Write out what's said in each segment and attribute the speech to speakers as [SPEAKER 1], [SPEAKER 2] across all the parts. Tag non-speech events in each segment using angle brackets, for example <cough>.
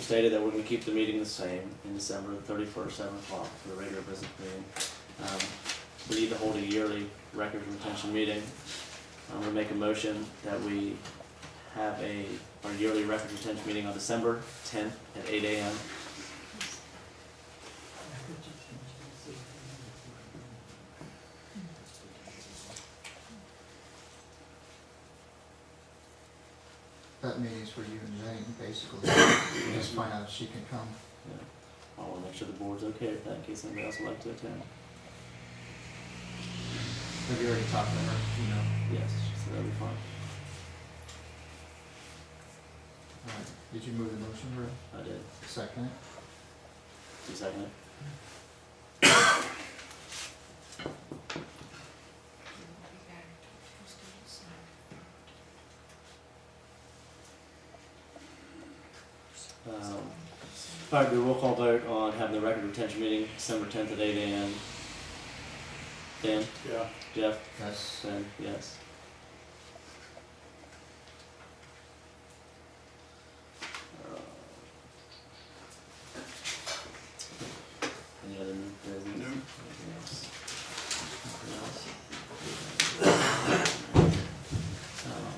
[SPEAKER 1] stated that we're gonna keep the meeting the same in December the thirty-first, seven o'clock for the regular business meeting. Um, We need to hold a yearly record retention meeting. I'm gonna make a motion that we have a, our yearly record retention meeting on December tenth at eight AM.
[SPEAKER 2] That meeting's for you and Jane, basically. You Just find out if she can come.
[SPEAKER 1] I wanna make sure the board's okay with that in case anybody else would like to attend.
[SPEAKER 2] Have you already talked to her? You know.
[SPEAKER 1] Yes, so that'll be fine.
[SPEAKER 2] All right. Did you move the motion, Rick?
[SPEAKER 1] I did.
[SPEAKER 2] Second it?
[SPEAKER 1] Do you second it? Um, all right, we will call vote on having the record retention meeting December tenth at eight AM. Dan,
[SPEAKER 3] Yeah.
[SPEAKER 1] Jeff,
[SPEAKER 2] Yes.
[SPEAKER 1] Ben, yes. Uh, Any other new business?
[SPEAKER 3] No.
[SPEAKER 1] Anything else? Anything else? Um,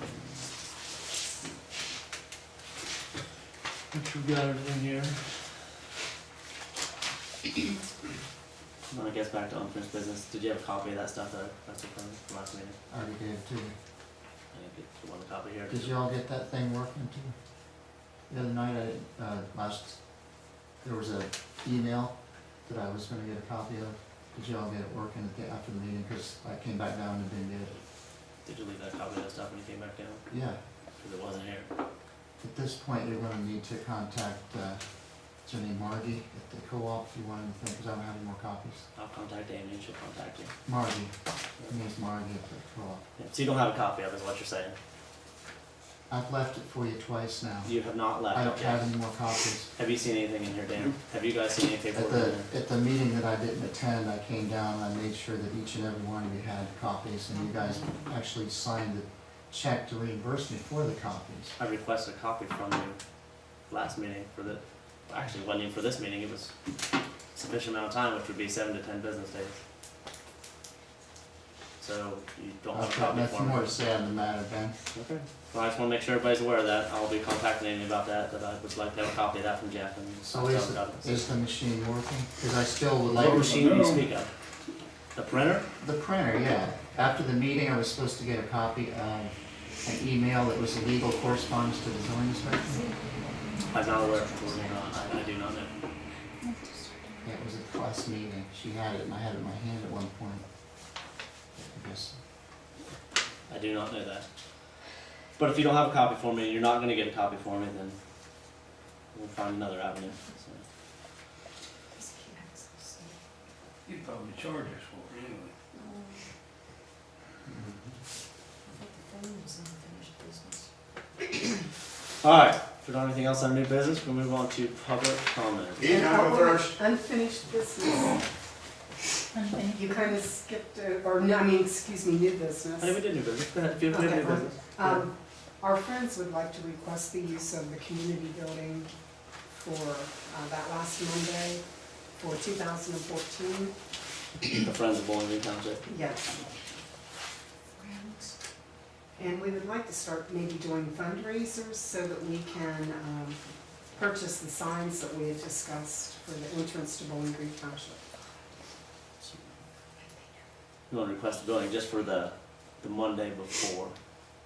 [SPEAKER 1] What you got in here? Um, When I guess back to unfinished business, did you have a copy of that stuff that I took from the last meeting?
[SPEAKER 2] I already gave it to you.
[SPEAKER 1] I didn't get the one copy here.
[SPEAKER 2] Did you all get that thing working too? The other night, I, didn't- uh, last, there was a email that I was gonna get a copy of. Did you all get it working at the, after the meeting? Cause I came back down and didn't get it.
[SPEAKER 1] Did you leave that copy of that stuff when you came back down?
[SPEAKER 2] Yeah.
[SPEAKER 1] Because it wasn't here.
[SPEAKER 2] At this point, you're gonna need to contact, uh, Jenny Margie at the co-op if you want anything, cause I don't have any more copies.
[SPEAKER 1] I'll contact Amy and she'll contact you.
[SPEAKER 2] Margie, her name's Margie at the co-op.
[SPEAKER 1] Yeah, So you don't have a copy of it, is what you're saying?
[SPEAKER 2] I've left it for you twice now.
[SPEAKER 1] You have not left
[SPEAKER 2] I
[SPEAKER 1] it
[SPEAKER 2] don't
[SPEAKER 1] yet.
[SPEAKER 2] have any more copies.
[SPEAKER 1] Have you seen anything in here, Dan? Have you guys seen any
[SPEAKER 2] At
[SPEAKER 1] paperwork in
[SPEAKER 2] the,
[SPEAKER 1] there?
[SPEAKER 2] at the meeting that I didn't attend, I came down, and I made sure that each and every one of you had copies, and you guys actually signed the check to reimburse me for the copies.
[SPEAKER 1] I requested a copy from you last meeting for the, actually, it wasn't even for this meeting, it was sufficient amount of time, which would be seven to ten business days. So you don't have
[SPEAKER 2] I've
[SPEAKER 1] a
[SPEAKER 2] got
[SPEAKER 1] copy
[SPEAKER 2] nothing
[SPEAKER 1] for me?
[SPEAKER 2] more to say on the matter, Ben.
[SPEAKER 1] Okay. Well, I just wanna make sure everybody's aware of that. I'll be contacting Amy about that, that I would like to have a copy of that from Jeff and.
[SPEAKER 2] So is, the- is the machine working? Cause I still would like.
[SPEAKER 1] What
[SPEAKER 2] to-
[SPEAKER 1] machine do you speak of? The printer?
[SPEAKER 2] The printer, yeah. After the meeting, I was supposed to get a copy of an email that was a legal correspondence to the zoning inspector.
[SPEAKER 1] I'm not aware if it's working or not. I, I do not know.
[SPEAKER 2] Yeah, it was at the last meeting. She had it, and I had it in my hand at one point. I guess,
[SPEAKER 1] I do not know that. But if you don't have a copy for me, and you're not gonna get a copy for me, then we'll find another avenue. So,
[SPEAKER 3] You probably charge us for it anyway.
[SPEAKER 2] mm-hmm.
[SPEAKER 1] Alright, if we don't have anything else on new business, we'll move on to public comment.
[SPEAKER 3] Ian, I go first.
[SPEAKER 4] Unfinished business. You kind of skipped, it- or, no, I mean, excuse me, new business.
[SPEAKER 1] I think we did new business. Go ahead, if you have
[SPEAKER 4] Okay,
[SPEAKER 1] new
[SPEAKER 4] fine.
[SPEAKER 1] business.
[SPEAKER 4] Um, Our friends would like to request the use of the community building for uh, that last Monday for 2014. uh,
[SPEAKER 1] The Friends of Bowling Green Township.
[SPEAKER 4] Yes. And we would like to start maybe doing fundraisers so that we can um, purchase the signs that we had discussed for the entrance to Bowling Green Township.
[SPEAKER 1] You wanna request a building just for the, the Monday before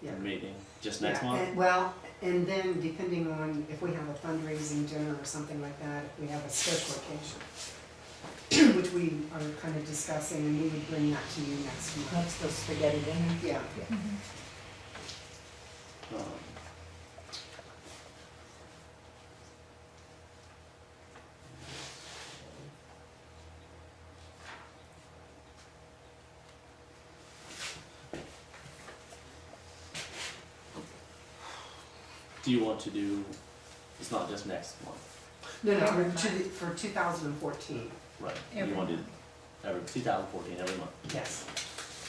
[SPEAKER 1] the
[SPEAKER 4] Yeah.
[SPEAKER 1] meeting, just next
[SPEAKER 4] Yeah,
[SPEAKER 1] month?
[SPEAKER 4] and- Well, and then depending on if we have a fundraising dinner or something like that, if we have a special occasion, <clears throat> which we are kind of discussing, and we would bring that to you next month.
[SPEAKER 5] That's the spaghetti dinner.
[SPEAKER 4] Yeah,
[SPEAKER 1] Um, Do you want to do, it's not just next month,
[SPEAKER 4] no, no, for two- for 2014,
[SPEAKER 1] right? You want to do every, 2014, every month.
[SPEAKER 4] yes.